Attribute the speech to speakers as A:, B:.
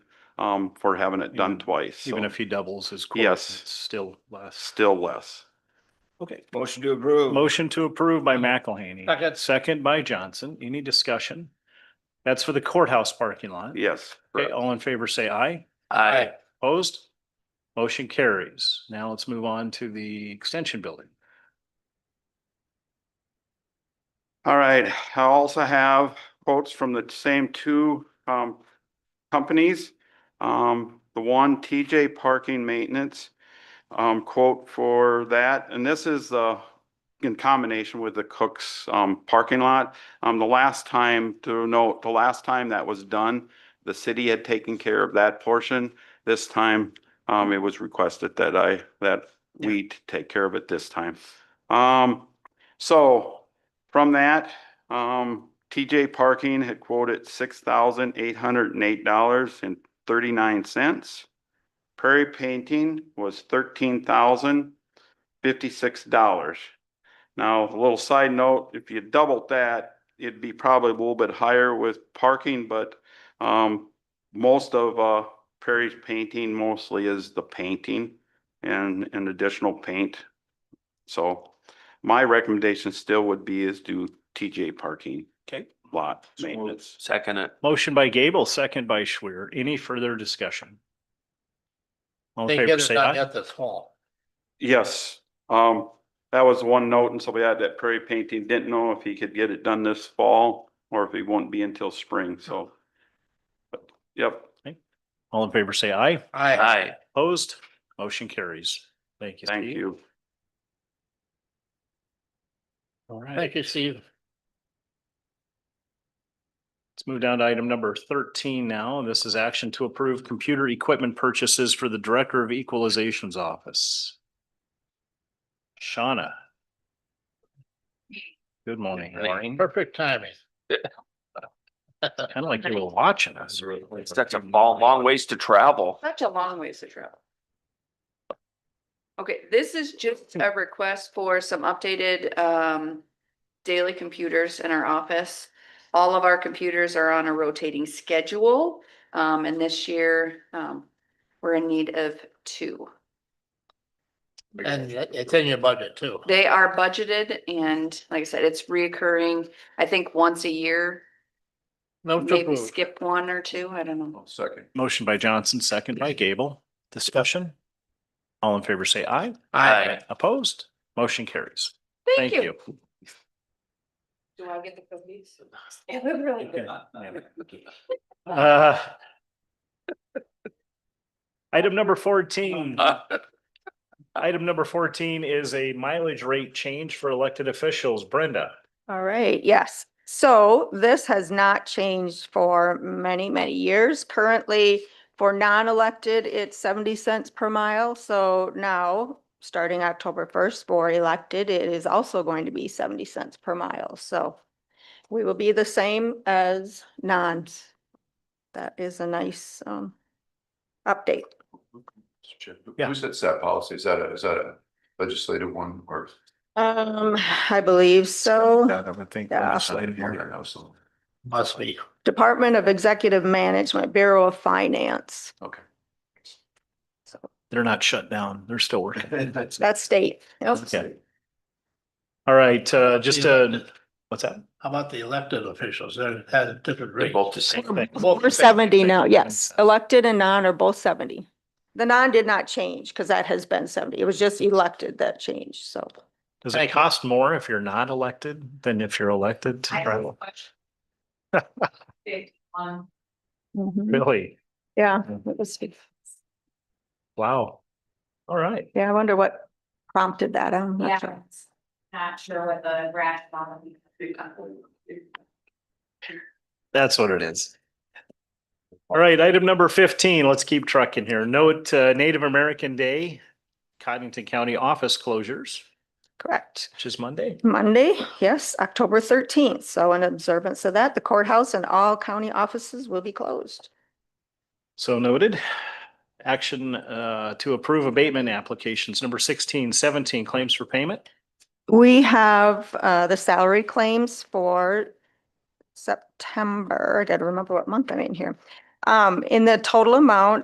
A: um, for having it done
B: Even-
A: twice.
B: Even
A: so
B: if he doubles his quota,
A: Yes.
B: it's still less.
A: Still less.
B: Okay.
C: Motion to approve.
B: Motion to approve by
A: Mm-hmm.
B: McElhaney.
C: Second.
B: Second by Johnson. Any discussion? That's for the courthouse parking lot.
A: Yes.
B: Okay,
A: correct.
B: all in favor, say aye.
C: Aye.
B: Opposed? Motion carries. Now let's move on to the extension building.
A: All right, I also have quotes from the same two um companies. Um, the one TJ Parking Maintenance um quote for that, and this is the in combination with the Cook's um parking lot. Um, the last time to note, the last time that was done, the city had taken care of that portion. This time, um, it was requested that I, that we t- take care of it this time. Um, so from that, um, TJ Parking had quoted six thousand eight hundred and eight dollars and thirty-nine cents. Prairie Painting was thirteen thousand fifty-six dollars. Now, a little side note, if you doubled that, it'd be probably a little bit higher with parking, but, um, most of, uh, Prairie's painting mostly is the painting and, and additional paint. So, my recommendation still would be is do TJ parking
B: Okay.
A: lot maintenance.
C: Second it.
B: Motion by Gable, second by Schwer. Any further discussion? All in
D: They
B: favor,
D: get it
B: say
D: done
B: aye.
D: at this fall.
A: Yes, um, that was one note and somebody had that prairie painting, didn't know if he could get it done this fall or if it won't be until spring, so. But, Yep,
B: All in favor, say aye.
D: I
C: Aye.
B: Opposed? Motion carries. Thank you.
A: thank
B: Steve.
A: you.
B: All right.
D: Thank you, Steve.
B: Let's move down to item number thirteen now. This is action to approve computer equipment purchases for the Director of Equalization's Office. Shauna. Good morning.
C: Good morning.
D: Perfect timing.
B: Kind of like you were watching us.
C: It's Such a long, long ways to travel.
E: Such a long ways to travel. Okay, this is just a request for some updated um daily computers in our office. All of our computers are on a rotating schedule, um, and this year, um, we're in need of two.
D: And it- it's in your budget too.
E: They are budgeted and like I said, it's reoccurring, I think once a year,
D: Move to
E: maybe
D: approve.
E: skip one or two, I don't
F: Oh,
E: know.
C: Second.
B: Motion by Johnson, second by Gable. Discussion? All in favor, say aye.
D: Aye.
B: Opposed? Motion carries.
E: Thank you. Do I get the cookies? Really good.
B: Uh, Item number fourteen. Item number fourteen is a mileage rate change for elected officials. Brenda.
G: All right, yes. So Oh, this has not changed for many, many years. Currently, for non-elected, it's seventy cents per mile. So now, starting October first, for elected, it is also going to be seventy cents per mile. So we will be the same as non's. That is a nice um update.
B: Yeah.
F: Who sets that policy? Is that a, is that a legislative one or?
G: Um, I believe so.
B: I would think.
G: Yeah.
D: Must be.
G: Department of Executive Management, Bureau of Finance.
F: Okay.
G: So
B: They're not shut down. They're still working.
G: That's state. Yep.
B: Okay. All right, uh, just uh what's that?
D: How about the elected officials? They're at a different
C: They're
D: rate.
C: both the same.
G: We're seventy now, yes. Elected and non are both seventy. The non did not change because that has been seventy. It was just elected that changed, so.
B: Does it
D: Thank you.
B: cost more if you're not elected than if you're elected? to
E: I have a
B: travel?
E: question. Big um, one.
B: Really?
G: Mm-hmm.
B: Mm-hmm.
G: Yeah,
B: Yeah.
G: it was,
B: Wow. All right.
G: yeah, I wonder what prompted that. I'm
E: Yeah,
G: not sure.
E: it's not sure what the rationale. would be.
B: That's what it is. All right, item number fifteen, let's keep trucking here. Note uh, Native American Day, Cottington County office closures,
G: Correct.
B: which is Monday.
G: Monday, yes, October thirteenth. So in observance of that, the courthouse and all county offices will be closed.
B: So noted. Action uh, to approve abatement applications, number 16, 17 claims for payment.
G: We have uh, the salary claims for September. I gotta remember what month I'm in here. um, in the total amount